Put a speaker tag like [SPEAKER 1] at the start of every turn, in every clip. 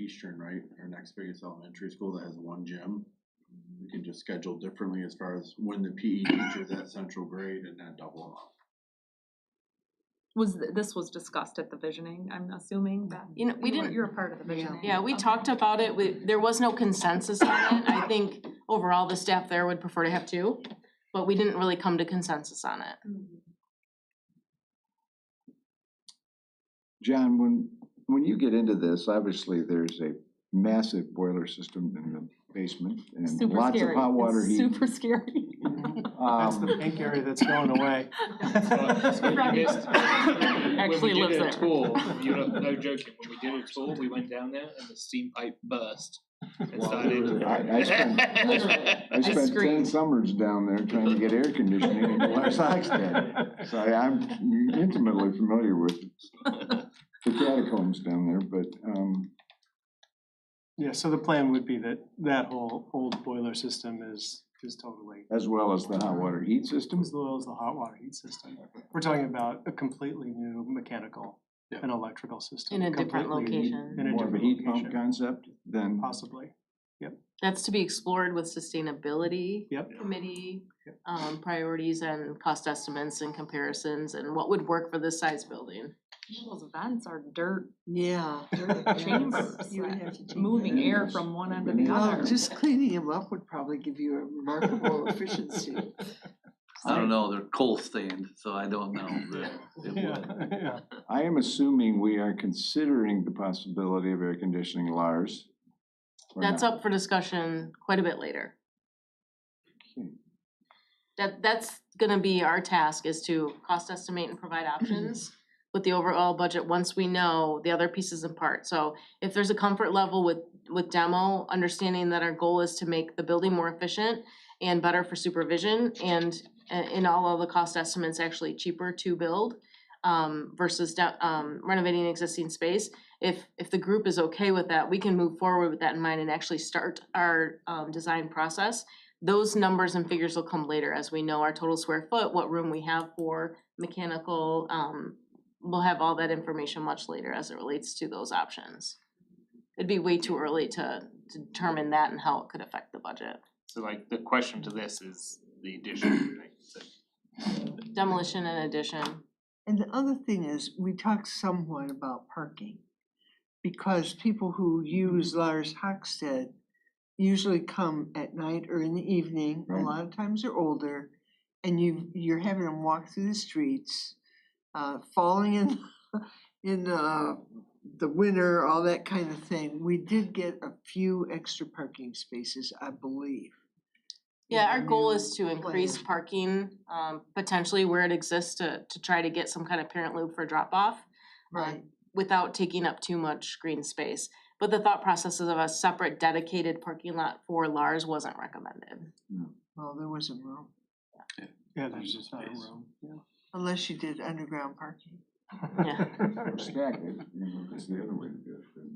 [SPEAKER 1] Eastern, right, our next biggest elementary school that has one gym. We can just schedule differently as far as when the PE teacher's at central grade and not double up.
[SPEAKER 2] Was, th- this was discussed at the visioning, I'm assuming that.
[SPEAKER 3] You know, we
[SPEAKER 2] you were-
[SPEAKER 3] didn't,
[SPEAKER 2] You were part of the visioning.
[SPEAKER 3] yeah, we
[SPEAKER 2] Okay.
[SPEAKER 3] talked about it, we, there was no consensus on it, I think overall the staff there would prefer to have two, but we didn't really come to consensus on it.
[SPEAKER 2] Mm-hmm.
[SPEAKER 4] John, when, when you get into this, obviously there's a massive boiler system in the basement and
[SPEAKER 2] Super
[SPEAKER 4] lots of
[SPEAKER 2] scary.
[SPEAKER 4] hot water
[SPEAKER 2] It's
[SPEAKER 4] heat.
[SPEAKER 2] Super scary.
[SPEAKER 5] That's the
[SPEAKER 4] Um,
[SPEAKER 5] pink area that's going away.
[SPEAKER 2] Right.
[SPEAKER 6] Actually
[SPEAKER 2] Actually
[SPEAKER 6] when we
[SPEAKER 2] lives
[SPEAKER 6] did a
[SPEAKER 2] there.
[SPEAKER 6] tour, you know, no joking, when we did a tour, we went down there and the steam pipe burst and started.
[SPEAKER 4] I, I spent, I spent ten
[SPEAKER 3] screamed.
[SPEAKER 4] summers down there trying to get air conditioning in West Oxted. So I- I'm intimately familiar with the catacombs down there, but, um,
[SPEAKER 5] Yeah, so the plan would be that that whole old boiler system is, is totally,
[SPEAKER 4] as well as the hot water heat system.
[SPEAKER 5] as well as the hot water heat system. We're talking about a completely new mechanical and electrical
[SPEAKER 3] In
[SPEAKER 5] system.
[SPEAKER 3] a different
[SPEAKER 5] completely,
[SPEAKER 3] location,
[SPEAKER 5] In a
[SPEAKER 4] More of a
[SPEAKER 5] different
[SPEAKER 4] heat pump
[SPEAKER 5] location.
[SPEAKER 4] concept than
[SPEAKER 5] Possibly.
[SPEAKER 3] that's to be explored with sustainability
[SPEAKER 5] Yep.
[SPEAKER 3] committee,
[SPEAKER 5] Yep.
[SPEAKER 3] um, priorities and cost estimates and comparisons and what would work for this size building.
[SPEAKER 2] Those vents are dirt
[SPEAKER 7] Yeah.
[SPEAKER 2] chambers,
[SPEAKER 7] You would have to change
[SPEAKER 2] moving
[SPEAKER 7] that.
[SPEAKER 2] air from one end to the
[SPEAKER 7] Well,
[SPEAKER 2] other.
[SPEAKER 7] just cleaning them up would probably give you a remarkable efficiency.
[SPEAKER 8] I don't know, they're coal stand, so I don't know, but it
[SPEAKER 5] Yeah,
[SPEAKER 8] would.
[SPEAKER 5] yeah.
[SPEAKER 4] I am assuming we are considering the possibility of air conditioning Lars. or
[SPEAKER 3] That's
[SPEAKER 4] not.
[SPEAKER 3] up for discussion quite a bit later.
[SPEAKER 4] Okay.
[SPEAKER 3] That, that's gonna be our task is to cost estimate and provide options with the overall budget, once we know the other pieces and parts. So if there's a comfort level with, with demo, understanding that our goal is to make the building more efficient and better for supervision and uh, in all of the cost estimates actually cheaper to build um versus da- um renovating existing space. If if the group is okay with that, we can move forward with that in mind and actually start our um design process. Those numbers and figures will come later as we know our total square foot, what room we have for mechanical, um we'll have all that information much later as it relates to those options. It'd be way too early to to determine that and how it could affect the budget.
[SPEAKER 6] So like, the question to this is the addition, right? So
[SPEAKER 3] Demolition and addition.
[SPEAKER 7] And the other thing is, we talked somewhat about parking. Because people who use
[SPEAKER 3] Mm-hmm.
[SPEAKER 7] Lars Hockstedt usually come at night or in the evening, a
[SPEAKER 4] Right.
[SPEAKER 7] lot of times they're older. And you, you're having them walk through the streets, uh, falling in, in, uh, the winter, all that kind of thing. We did get a few extra parking spaces, I believe. in
[SPEAKER 3] Yeah, our goal
[SPEAKER 7] new
[SPEAKER 3] is to increase
[SPEAKER 7] plan.
[SPEAKER 3] parking, um, potentially where it exists to, to try to get some kind of parent loop for drop off.
[SPEAKER 7] Right,
[SPEAKER 3] Without taking up too much green space, but the thought processes of a separate dedicated parking lot for Lars wasn't recommended.
[SPEAKER 7] well, there wasn't room,
[SPEAKER 5] Yeah, there's just not a room.
[SPEAKER 7] unless you did underground parking.
[SPEAKER 3] Yeah.
[SPEAKER 4] Or stack it, you know, that's the other way to do it.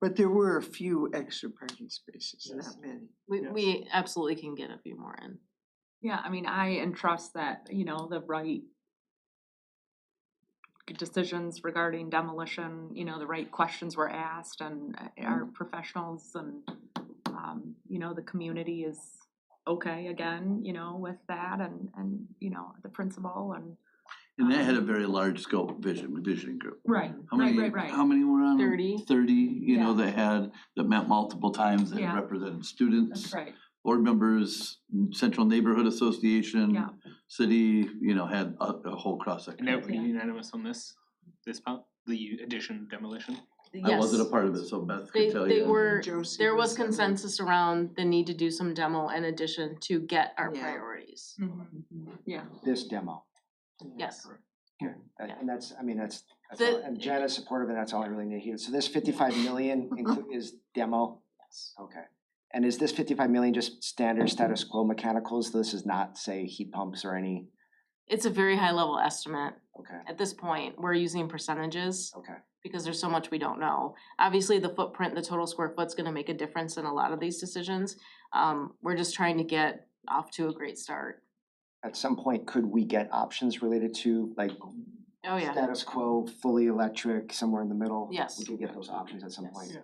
[SPEAKER 7] But there were a few extra parking spaces,
[SPEAKER 5] Yes.
[SPEAKER 7] not many.
[SPEAKER 3] We,
[SPEAKER 5] Yes.
[SPEAKER 3] we absolutely can get a few more in.
[SPEAKER 2] Yeah, I mean, I entrust that, you know, the right decisions regarding demolition, you know, the right questions were asked and eh, our
[SPEAKER 8] Mm.
[SPEAKER 2] professionals and, um, you know, the community is okay again, you know, with that and, and, you know, the principal and. um,
[SPEAKER 8] And that had a very large scope vision, visioning group.
[SPEAKER 2] Right,
[SPEAKER 8] How many? How many were on? it?
[SPEAKER 3] 30.
[SPEAKER 8] Thirty, you know,
[SPEAKER 2] Yeah.
[SPEAKER 8] that had, that met multiple times and
[SPEAKER 2] Yeah.
[SPEAKER 8] represented students,
[SPEAKER 2] That's right,
[SPEAKER 8] board members, Central Neighborhood Association.
[SPEAKER 2] Yeah.
[SPEAKER 8] City, you know, had a, a whole cross
[SPEAKER 6] And
[SPEAKER 8] section.
[SPEAKER 6] everybody unanimous on this, this part, the addition demolition?
[SPEAKER 8] I wasn't a
[SPEAKER 3] Yes.
[SPEAKER 8] part of it, so Beth
[SPEAKER 3] They,
[SPEAKER 8] could tell you.
[SPEAKER 3] they were,
[SPEAKER 7] Josie
[SPEAKER 3] there was
[SPEAKER 7] on it.
[SPEAKER 3] consensus around the need to do some demo and addition to get our
[SPEAKER 7] Yeah.
[SPEAKER 3] priorities.
[SPEAKER 2] Mm-hmm. yeah.
[SPEAKER 9] this demo.
[SPEAKER 3] Yes.
[SPEAKER 9] And
[SPEAKER 3] Yeah.
[SPEAKER 9] and that's, I mean, that's, that's
[SPEAKER 3] The-
[SPEAKER 9] all- and Jen is supportive, and that's all I really need here. So this fifty-five million inclu- is demo? Yes. Okay. And is this fifty-five million just standard status quo mechanicals? This is not, say, heat pumps or any,
[SPEAKER 3] It's a very high level estimate.
[SPEAKER 9] okay,
[SPEAKER 3] At this point, we're using percentages.
[SPEAKER 9] okay.
[SPEAKER 3] because there's so much we don't know. Obviously, the footprint, the total square foot's gonna make a difference in a lot of these decisions. Um, we're just trying to get off to a great start.
[SPEAKER 9] At some point, could we get options related to like
[SPEAKER 3] Oh, yeah.
[SPEAKER 4] status quo, fully electric, somewhere in the middle.
[SPEAKER 3] Yes.
[SPEAKER 4] We can get those options at some point.
[SPEAKER 3] Yes.